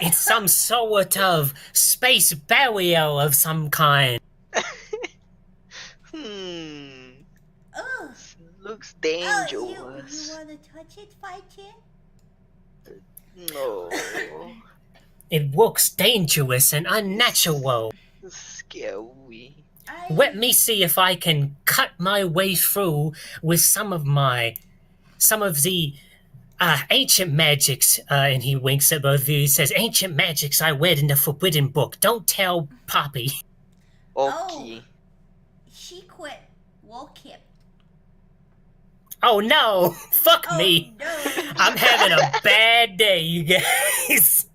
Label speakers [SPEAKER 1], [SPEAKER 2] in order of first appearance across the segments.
[SPEAKER 1] it's some sort of space burial of some kind.
[SPEAKER 2] Hmm.
[SPEAKER 3] Ugh.
[SPEAKER 2] Looks
[SPEAKER 3] Oh, you, you
[SPEAKER 2] dangerous.
[SPEAKER 3] want to touch it, Five Chan?
[SPEAKER 2] No.
[SPEAKER 1] It looks dangerous and unnatural.
[SPEAKER 2] Scary.
[SPEAKER 3] I
[SPEAKER 1] Let me see if I can cut my way through with some of my, some of the uh, ancient magics. Uh, and he winks at both of you. He says, "Ancient magics I read in the Forbidden Book. Don't tell Poppy."
[SPEAKER 2] Okay.
[SPEAKER 3] She quit. Wolkip.
[SPEAKER 1] Oh no! Fuck
[SPEAKER 3] Oh,
[SPEAKER 1] me!
[SPEAKER 3] no.
[SPEAKER 1] I'm having a bad day, you guys.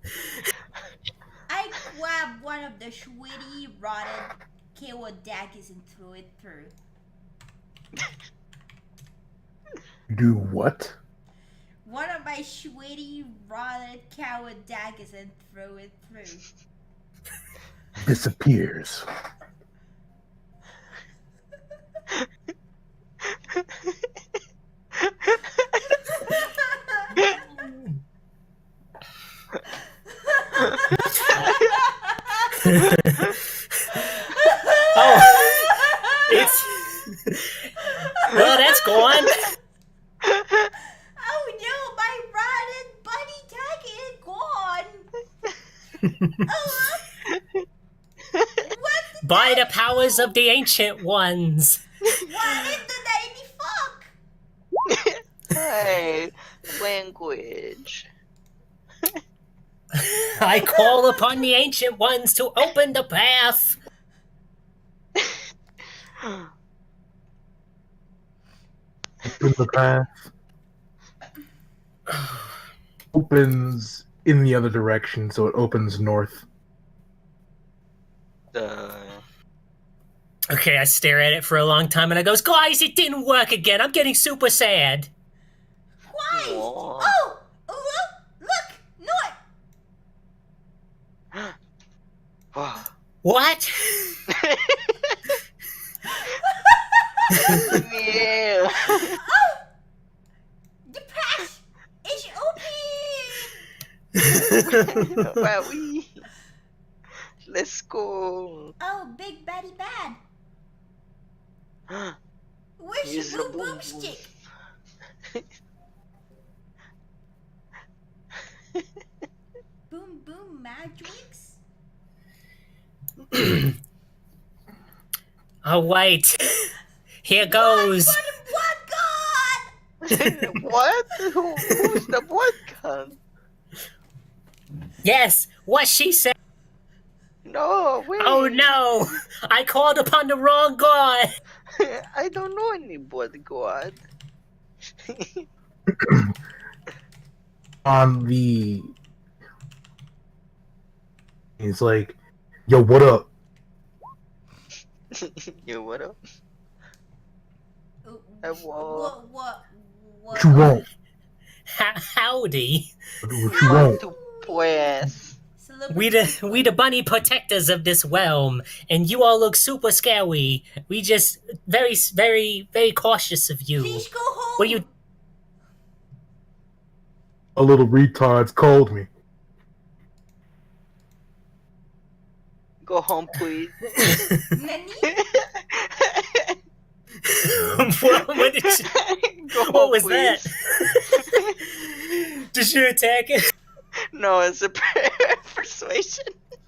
[SPEAKER 3] I grabbed one of the sweaty, rotted Kawa daggers and threw it through.
[SPEAKER 4] Do what?
[SPEAKER 3] One of my sweaty, rotted Kawa daggers and threw it through.
[SPEAKER 4] Disappears.
[SPEAKER 1] Oh, it's well, that's gone.
[SPEAKER 3] Oh no, Oh, my rotted bunny tag is gone! oh, look! what the,
[SPEAKER 1] By the powers of the ancient ones.
[SPEAKER 3] what in the dandy fuck?
[SPEAKER 2] hey, language.
[SPEAKER 1] I call upon the ancient ones to open the path.
[SPEAKER 4] Open the path. opens in the other direction, so it opens north.
[SPEAKER 2] Uh,
[SPEAKER 1] Okay, I stare at it for a long time and I goes, guys, it didn't work again. I'm getting super sad.
[SPEAKER 3] Christ!
[SPEAKER 2] Aw.
[SPEAKER 3] Oh! Look! Look! North!
[SPEAKER 2] wow.
[SPEAKER 1] What?
[SPEAKER 2] yeah.
[SPEAKER 3] Oh! The patch is open!
[SPEAKER 2] Wow, we. Let's go.
[SPEAKER 3] Oh, big baddie bad. Where's
[SPEAKER 2] Use
[SPEAKER 3] your
[SPEAKER 2] the
[SPEAKER 3] boom boom stick? Boom boom magics?
[SPEAKER 1] All right. Oh, Here goes.
[SPEAKER 3] What god?
[SPEAKER 2] what? Who, who's the blood gun?
[SPEAKER 1] Yes, what she said.
[SPEAKER 2] No, wait.
[SPEAKER 1] Oh no, I called upon the wrong god.
[SPEAKER 2] I don't know any blood god.
[SPEAKER 4] On the. He's like, yo, what up?
[SPEAKER 2] you what up?
[SPEAKER 3] Oh,
[SPEAKER 2] I want-
[SPEAKER 3] What, what,
[SPEAKER 4] What you want?
[SPEAKER 1] Ho- Howdy.
[SPEAKER 4] What you want?
[SPEAKER 2] To bless.
[SPEAKER 3] Celebrity
[SPEAKER 1] We the, we the bunny protectors of this realm, and you all look super scary. We just very, very, very cautious of you.
[SPEAKER 3] Please go home.
[SPEAKER 1] What you-
[SPEAKER 4] A little retard's called me.
[SPEAKER 2] Go home, please.
[SPEAKER 3] Nani?
[SPEAKER 1] what, what did you-
[SPEAKER 2] Go
[SPEAKER 1] What was
[SPEAKER 2] please.
[SPEAKER 1] that? Did you attack it?
[SPEAKER 2] No, it's a per- persuasion.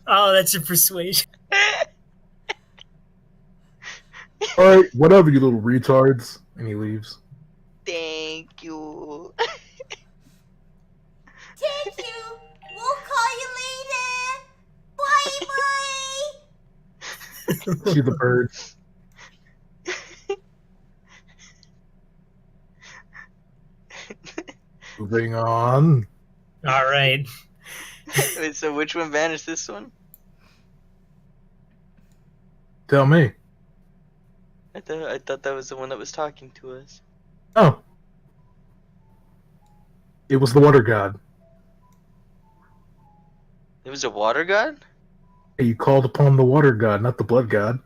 [SPEAKER 1] Oh, that's a persuasion.
[SPEAKER 4] Alright, whatever, you little retards. And he leaves.
[SPEAKER 2] Thank you.
[SPEAKER 3] Thank you. We'll call you later. Bye bye.
[SPEAKER 4] See the bird. Moving on.
[SPEAKER 1] All right.
[SPEAKER 2] Wait, so which one vanished? This one?
[SPEAKER 4] Tell me.
[SPEAKER 2] I thought I thought that was the one that was talking to us.
[SPEAKER 4] Oh. It was the water god.
[SPEAKER 2] It was a water god.
[SPEAKER 4] You called upon the water god, not the blood god.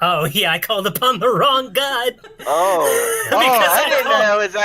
[SPEAKER 1] Oh yeah, I called upon the wrong god.
[SPEAKER 2] Oh, oh,
[SPEAKER 1] Because I
[SPEAKER 2] I didn't know
[SPEAKER 1] called-
[SPEAKER 2] that was